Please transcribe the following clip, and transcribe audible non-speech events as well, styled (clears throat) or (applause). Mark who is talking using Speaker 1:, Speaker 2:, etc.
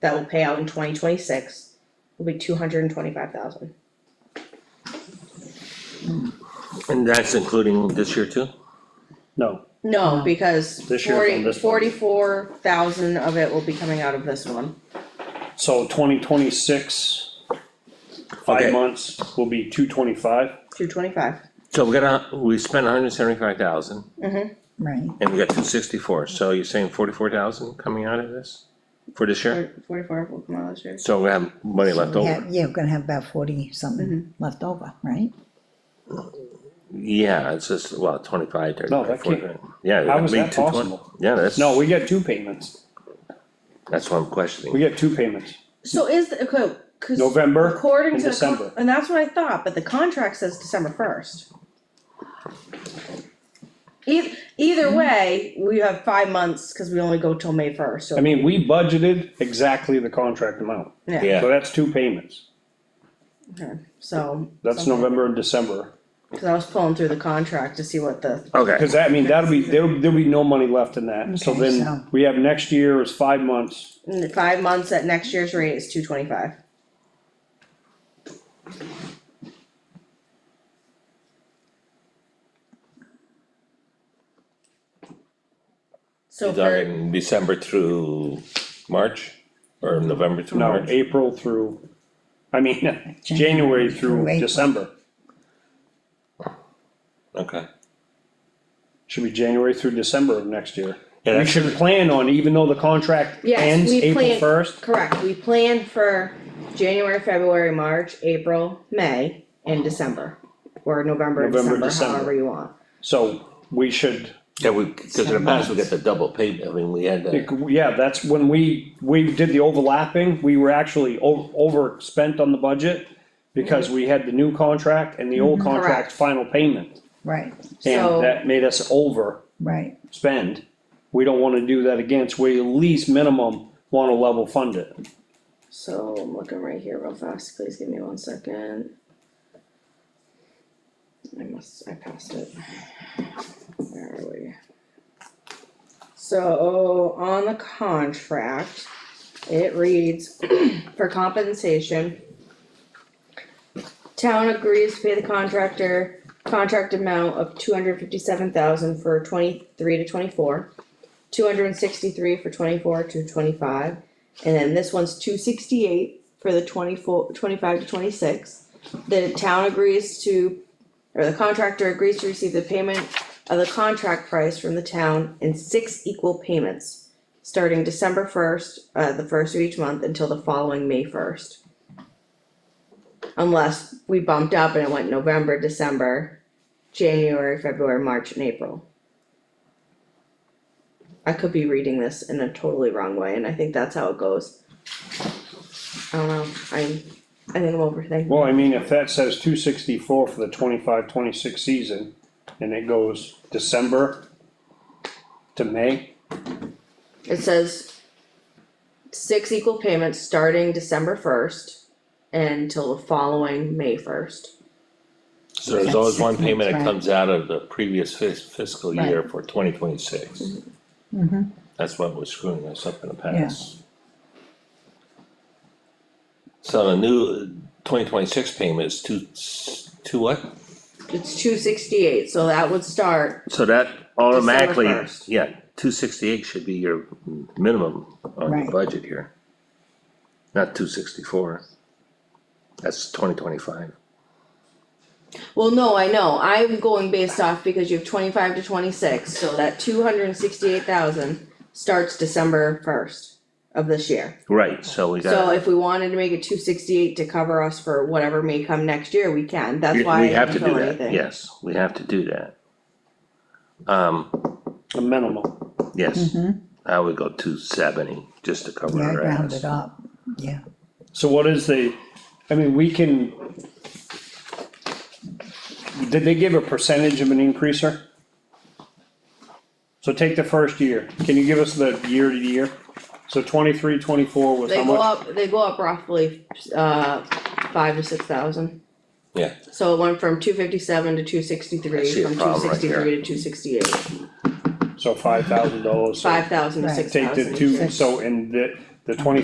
Speaker 1: that will pay out in twenty twenty-six will be two hundred and twenty-five thousand.
Speaker 2: And that's including this year too?
Speaker 3: No,
Speaker 1: No, because
Speaker 3: This year from
Speaker 1: forty,
Speaker 3: this one.
Speaker 1: forty-four thousand of it will be coming out of this one.
Speaker 3: so twenty twenty-six,
Speaker 2: Okay.
Speaker 3: five months will be two twenty-five.
Speaker 1: Two twenty-five,
Speaker 2: So we got a, we spent hundred and seventy-five thousand
Speaker 4: Right,
Speaker 2: and we got two sixty-four, so you're saying forty-four thousand coming out of this? For this year?
Speaker 1: forty-four will come out this year.
Speaker 2: So we have money left
Speaker 4: yeah,
Speaker 2: over,
Speaker 4: yeah, we're gonna have about forty something left over, right?
Speaker 2: yeah, it's just, well, twenty-five,
Speaker 3: No,
Speaker 2: thirty-five,
Speaker 3: that can't-
Speaker 2: forty, yeah.
Speaker 3: How
Speaker 2: it'd
Speaker 3: is
Speaker 2: be
Speaker 3: that
Speaker 2: 220.
Speaker 3: possible?
Speaker 2: Yeah, that's,
Speaker 3: No, we get two payments.
Speaker 2: that's what I'm
Speaker 3: We
Speaker 2: questioning,
Speaker 3: get two payments.
Speaker 1: So is, the- okay, cause.
Speaker 3: November
Speaker 1: According
Speaker 3: and
Speaker 1: to the, con-
Speaker 3: December.
Speaker 1: and that's what I thought, but the contract says December first. Either, either way, we have five months, cause we only go till May first,
Speaker 3: I
Speaker 1: so,
Speaker 3: mean, we budgeted exactly the contract amount.
Speaker 1: yeah,
Speaker 2: yeah.
Speaker 3: So that's two payments.
Speaker 1: okay, so.
Speaker 3: That's
Speaker 1: something-
Speaker 3: November and December.
Speaker 1: Cause I was pulling through the contract to see what the,
Speaker 2: Okay,
Speaker 3: Cause that, I mean, that'll be, there'll, there'll be no money left in that. So
Speaker 4: Okay, so-
Speaker 3: then we have next year is five months.
Speaker 1: in the five months at next year's rate is two twenty-five. So
Speaker 2: you're
Speaker 1: for,
Speaker 2: talking December through March, or November through
Speaker 3: No,
Speaker 2: March?
Speaker 3: April through, I mean, (laughs) January
Speaker 4: through
Speaker 3: through
Speaker 4: April.
Speaker 3: December.
Speaker 2: Okay,
Speaker 3: Should be January through December of next year.
Speaker 2: Yeah,
Speaker 3: We
Speaker 2: that
Speaker 3: should plan on, even though the contract
Speaker 1: Yes,
Speaker 3: ends
Speaker 1: we
Speaker 3: April
Speaker 1: plan-
Speaker 3: first,
Speaker 1: correct, we planned for January, February, March, April, May, and December. Or November, and
Speaker 3: November,
Speaker 1: December,
Speaker 3: December.
Speaker 1: however you want.
Speaker 3: so we should,
Speaker 2: yeah, we, cause in the past, we got the double payment, I mean, we had the,
Speaker 3: yeah, that's when we, we did the overlapping, we were actually o- overspent on the budget because we had the new contract and the old
Speaker 1: Mm-hmm. Correct.
Speaker 3: contract final payment,
Speaker 4: Right,
Speaker 1: So-
Speaker 3: and that made us overspend.
Speaker 4: right,
Speaker 3: We don't wanna do that again, so we at least minimum wanna level fund it.
Speaker 1: So I'm looking right here real fast, please give me one second. I must, I passed it. Where are we? So on the contract, it reads (clears throat) for compensation. Town agrees to pay the contractor contract amount of two hundred fifty-seven thousand for twenty-three to twenty-four. Two hundred and sixty-three for twenty-four to twenty-five. And then this one's two sixty-eight for the 24 25 to twenty-six. The town agrees to, or the contractor agrees to receive the payment of the contract price from the town in six equal payments. Starting December first, uh, the first of each month until the following May first. Unless we bumped up and it went November, December, January, February, March and April. I could be reading this in a totally wrong way, and I think that's how it goes. I don't know, I'm, I think I'm overthinking,
Speaker 3: Well, I mean, if that says two sixty-four for the 25-26 season, and it goes December to May,
Speaker 1: it says. Six equal payments starting December first until the following May first.
Speaker 2: so there's always one payment that
Speaker 4: Right.
Speaker 2: comes out of the previous fis- fiscal year for twenty twenty-six.
Speaker 4: Mm-hmm.
Speaker 2: That's what was screwing us up in the past. So the new twenty twenty-six payment is two, s- two what?
Speaker 1: It's two sixty-eight, so that would start,
Speaker 2: So that automatically,
Speaker 1: 1st.
Speaker 2: yeah, two sixty-eight should be your minimum on
Speaker 4: Right.
Speaker 2: your budget here. Not two sixty-four. That's twenty twenty-five.
Speaker 1: well, no, I know, I'm going based off because you have twenty-five to twenty-six, so that two hundred and sixty-eight thousand. Starts December first of this year.
Speaker 2: Right, so we
Speaker 1: So
Speaker 2: got,
Speaker 1: if we wanted to make it two sixty-eight to cover us for whatever may come next year, we can, that's
Speaker 2: we
Speaker 1: why I
Speaker 2: we have
Speaker 1: didn't
Speaker 2: to do
Speaker 1: fill
Speaker 2: that,
Speaker 1: anything.
Speaker 2: yes, we have to do that. Um,
Speaker 3: a minimum.
Speaker 2: yes,
Speaker 1: Mm-hmm.
Speaker 2: I would go two seventy, just to cover
Speaker 4: yeah,
Speaker 2: our
Speaker 4: round
Speaker 2: ass.
Speaker 4: it up, yeah,
Speaker 3: So what is the, I mean, we can. Did they give a percentage of an increaser? So take the first year, can you give us the year to year? So 23-24 was
Speaker 1: They
Speaker 3: how
Speaker 1: go
Speaker 3: much?
Speaker 1: up, they go up roughly, uh, five to six thousand.
Speaker 2: Yeah.
Speaker 1: So it went from two fifty-seven to two
Speaker 2: I see
Speaker 1: sixty-three,
Speaker 2: a
Speaker 1: from two
Speaker 2: problem right here.
Speaker 1: sixty-three to two sixty-eight,
Speaker 3: So five thousand dollars, so
Speaker 1: five thousand to
Speaker 4: Right.
Speaker 1: six thousand.
Speaker 3: take the two, so in the, the twenty